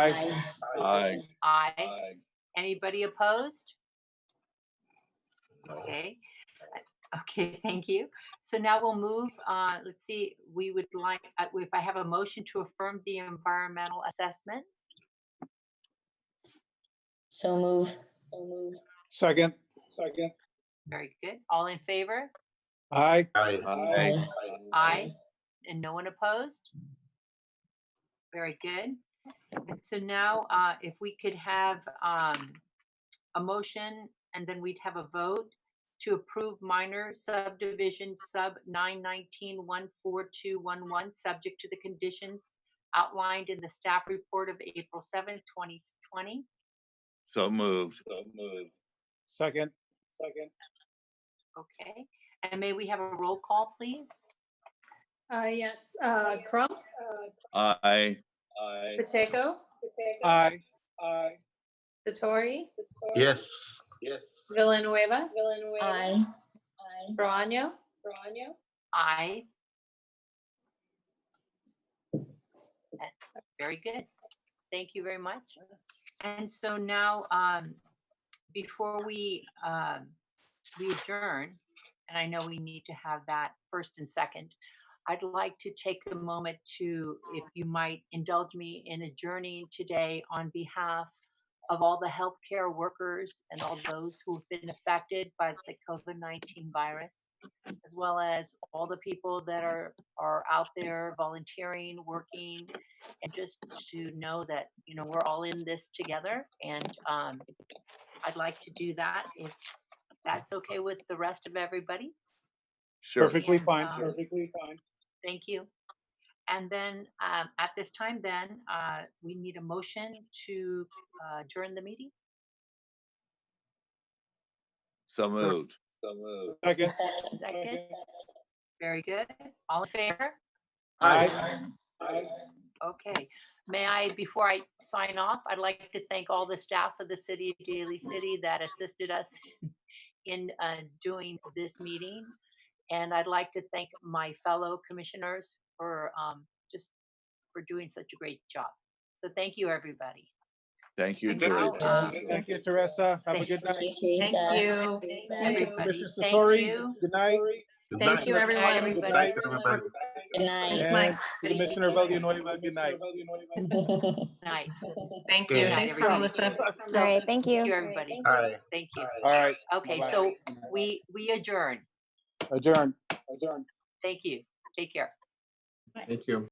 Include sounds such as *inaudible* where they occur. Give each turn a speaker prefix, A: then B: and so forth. A: Aye.
B: Aye.
C: Aye. Anybody opposed? Okay, *laughs* okay, thank you. So now we'll move, uh, let's see, we would like, uh, if I have a motion to affirm the environmental assessment.
A: So move. So move.
D: Second. Second.
C: Very good. All in favor?
D: Aye.
B: Aye.
C: Aye. And no one opposed? Very good. And so now, uh, if we could have, um, a motion and then we'd have a vote to approve minor subdivision sub nine nineteen one four two one one, subject to the conditions outlined in the staff report of April seventh, twenty twenty.
B: So moved. So moved.
D: Second. Second.
C: Okay, and may we have a roll call, please?
E: Uh, yes, uh, Crump,
B: Aye. Aye.
E: Pacheco,
D: Aye. Aye.
E: Satori,
F: Yes. Yes.
E: Villanueva,
A: Aye.
E: Brano,
C: Aye. Very good. Thank you very much. And so now, um, before we, um, we adjourn, and I know we need to have that first and second, I'd like to take a moment to, if you might indulge me in adjourning today on behalf of all the healthcare workers and all those who've been affected by the COVID-19 virus as well as all the people that are are out there volunteering, working, and just to know that you know we're all in this together. And um, I'd like to do that if that's okay with the rest of everybody.
B: Sure.
D: Perfectly
C: Yeah.
D: fine.
C: Um,
D: Perfectly fine.
C: Thank you. And then um, at this time, then uh, we need a motion to uh, adjourn the meeting.
B: So moved. So moved.
D: Second.
C: Second. Very good. All in favor?
D: Aye. Aye.
C: Okay, may I, before I sign off, I'd like to thank all the staff of the city of Daly City that assisted us *laughs* in uh, doing this meeting. And I'd like to thank my fellow commissioners for um, just for doing such a great job. So thank you, everybody.
B: Thank you,
C: And now,
B: Teresa.
C: uh,
D: Thank you, Teresa. Have a
C: Thank
D: good night.
A: Thank you.
C: Everybody,
D: Mr.
C: thank
D: Satori,
C: you.
D: good night.
F: Thank
D: you,
C: everyone.
D: Good
C: Everybody.
D: night.
F: everybody.
A: Good night.
D: And Commissioner Villanueva, good night.
G: *laughs*
C: Night.
H: Thank
F: Good
H: you.
C: night,
H: Thanks for
C: everybody.
H: listening.
C: So,
G: All right, thank you.
C: Thank you, everybody.
F: Aye.
C: Thank you.
D: All right,
C: Okay,
D: Bye-bye.
C: so we, we adjourn.
D: adjourn. Adjourn.
C: Thank you. Take care.
F: Thank you.